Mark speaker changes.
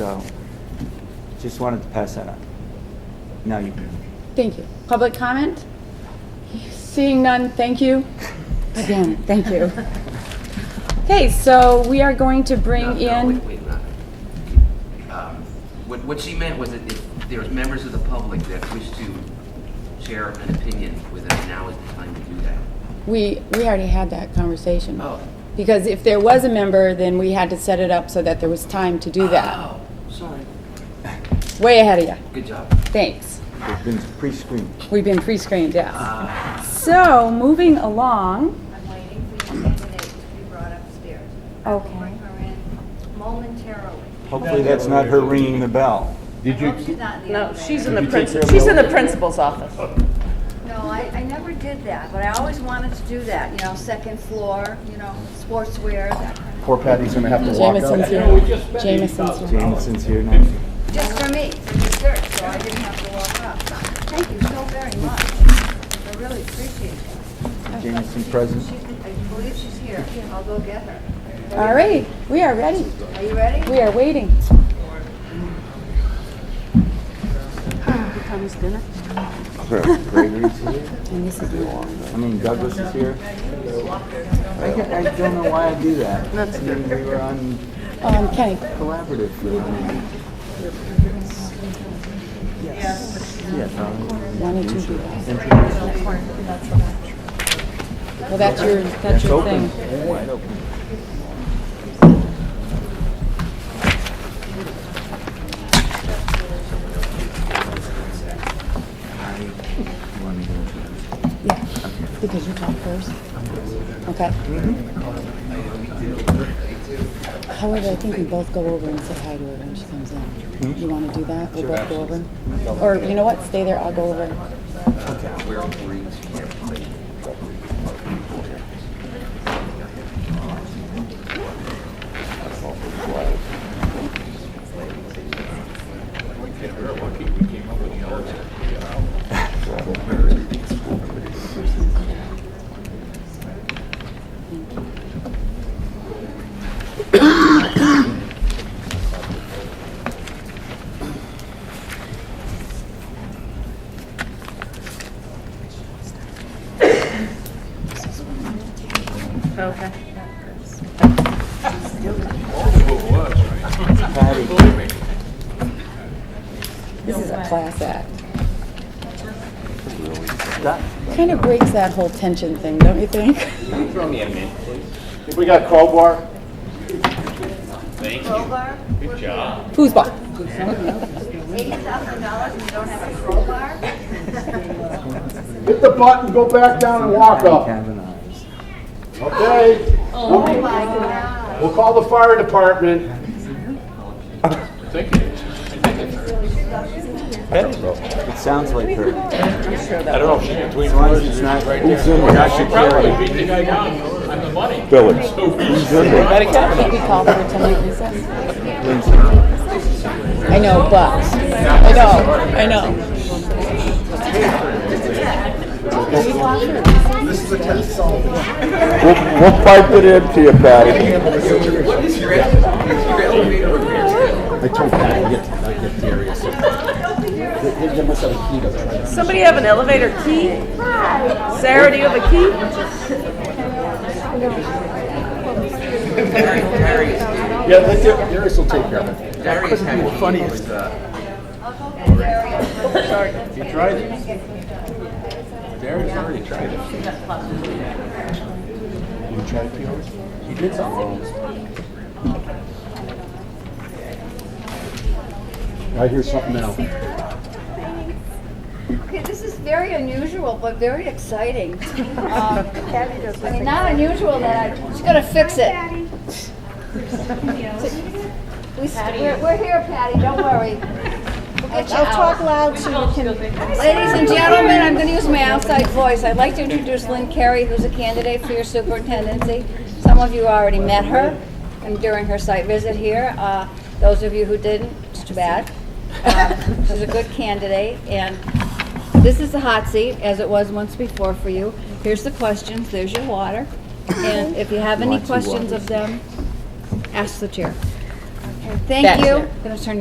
Speaker 1: So, just wanted to pass that on. Now you can.
Speaker 2: Thank you. Public comment? Seeing none, thank you. Again, thank you. Okay, so we are going to
Speaker 3: No,
Speaker 2: bring
Speaker 3: no,
Speaker 2: in,
Speaker 3: wait, wait, not- um, What, what she meant was that if there's members of the public that wish to share an opinion with us, now is the time to do that.
Speaker 2: we, we already had that conversation.
Speaker 3: Oh.
Speaker 2: Because if there was a member, then we had to set it up so that there was time to do that.
Speaker 3: Oh, sorry. Oh.
Speaker 2: Way ahead of ya.
Speaker 3: Good job.
Speaker 2: Thanks.
Speaker 1: They've been pre-screened.
Speaker 2: We've been pre-screened,
Speaker 3: Ah.
Speaker 2: yes. So, moving along,
Speaker 4: I'm waiting for your candidate to be brought upstairs. I will Bring her in momentarily.
Speaker 1: Hopefully, that's not her ringing the bell.
Speaker 4: Did you? She's not in the
Speaker 5: No,
Speaker 4: elevator.
Speaker 5: she's in the principal, she's in the principal's office.
Speaker 4: No, I, I never did that, but I always wanted to do that, you know, second floor, you know, sportswear, that kind
Speaker 6: Poor Patty's gonna have to walk
Speaker 2: Jameson's
Speaker 6: out.
Speaker 2: here. Jameson's here.
Speaker 1: Jameson's here now.
Speaker 4: of, just for me, for dessert, so I didn't have to walk up. Thank you so very much. I really appreciate it.
Speaker 1: Jameson present.
Speaker 4: She's, I believe she's here. I'll go get her.
Speaker 2: All right, we are ready.
Speaker 4: Are you ready?
Speaker 2: We are waiting. Um, Here comes dinner.
Speaker 1: Gregory's here.
Speaker 2: And this is New Orleans.
Speaker 1: I mean, Douglas is here. I get- I don't know why I do that. That's good. We were on
Speaker 2: Um, Kenny,
Speaker 1: collaborative for a minute. Yes. Yes.
Speaker 2: why don't you do that? Well, that's your, that's
Speaker 1: It's
Speaker 2: your
Speaker 1: open,
Speaker 2: thing.
Speaker 1: wide open. You want me to introduce?
Speaker 2: Yeah, because you talk first. Okay. However, I think we both go over and say hi to her when she comes in. You want to do that? We'll both go over? Or, you know what, stay there, I'll go over.
Speaker 5: Okay.
Speaker 1: Patty,
Speaker 2: This is a class act.
Speaker 1: Doc-
Speaker 2: Kind of breaks that whole tension thing, don't you think?
Speaker 6: If we got crowbar,
Speaker 4: Crowbar?
Speaker 2: Foosball.
Speaker 4: Eighty thousand dollars and you don't have a crowbar?
Speaker 6: hit the button, go back down and walk up.
Speaker 1: Kavanaugh.
Speaker 6: Okay? We'll-
Speaker 4: Oh My God.
Speaker 6: We'll call the fire department.
Speaker 1: It sounds like her. As
Speaker 7: I don't know if she can tweet
Speaker 1: long as it's not, we're not Shakira.
Speaker 7: beat the guy down on the money.
Speaker 2: Can we call for a ten-minute recess? I know, but, I know, I know.
Speaker 6: We'll we'll pipe it in to you, Patty.
Speaker 3: What is your, what is your elevator repair?
Speaker 6: I told Patty, I get, I get furious. They must have a key to that.
Speaker 5: Somebody have an elevator key? Sarah, do you have a key?
Speaker 3: Darius,
Speaker 6: Yeah, they do. Darius will take care of it.
Speaker 3: Darius had a meeting with, uh,
Speaker 6: You tried it? Darius already tried it. You tried it, yours? He did something. I hear something now.
Speaker 4: Okay, this is very unusual, but very exciting. Um, I mean, not unusual that I, she's gonna fix it. We, st- we're, we're here, Patty, don't worry. We'll get you out.
Speaker 8: loud so you can.
Speaker 4: Ladies and gentlemen, I'm gonna use my outside voice. I'd like to introduce Lynn Carey, who's a candidate for your superintendency. Some of you already met her and during her site visit here. Uh, Those of you who didn't, it's too bad. Um, She's a good candidate, and this is the hot seat, as it was once before for you. Here's the questions, there's your water. And if you have any questions of them, ask the chair. Thank
Speaker 2: That's
Speaker 4: you.
Speaker 2: it.
Speaker 4: Gonna turn